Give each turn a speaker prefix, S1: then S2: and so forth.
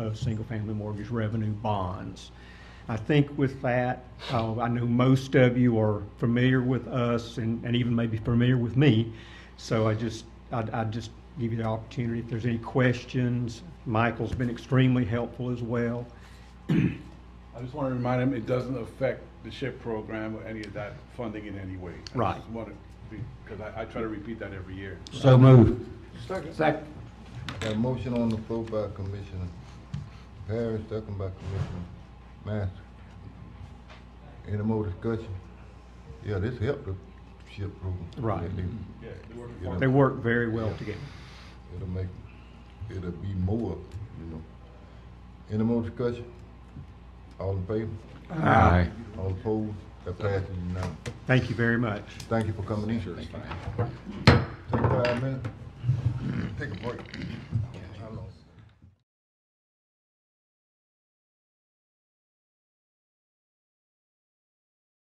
S1: of single-family mortgage revenue bonds. I think with that, uh, I know most of you are familiar with us and, and even maybe familiar with me. So I just, I'd, I'd just give you the opportunity if there's any questions. Michael's been extremely helpful as well.
S2: I just want to remind him, it doesn't affect the SHIP program or any of that funding in any way. I
S1: Right.
S2: just want to be- Because I, I try to repeat that every year.
S1: So moved.
S3: Second. Got a motion on the floor by Commissioner Parrish, second by Commissioner Master. Any more discussion? Yeah, this helped the ship program.
S1: Right.
S3: It'll-
S2: Yeah, they work
S3: it'll-
S1: They work very well together.
S3: It'll make, it'll be more, you know. Any more discussion? All in favor?
S4: Aye.
S3: All opposed? That passes unanimously.
S1: Thank you very much.
S3: Thank you for coming in. Take five minutes. Take a break.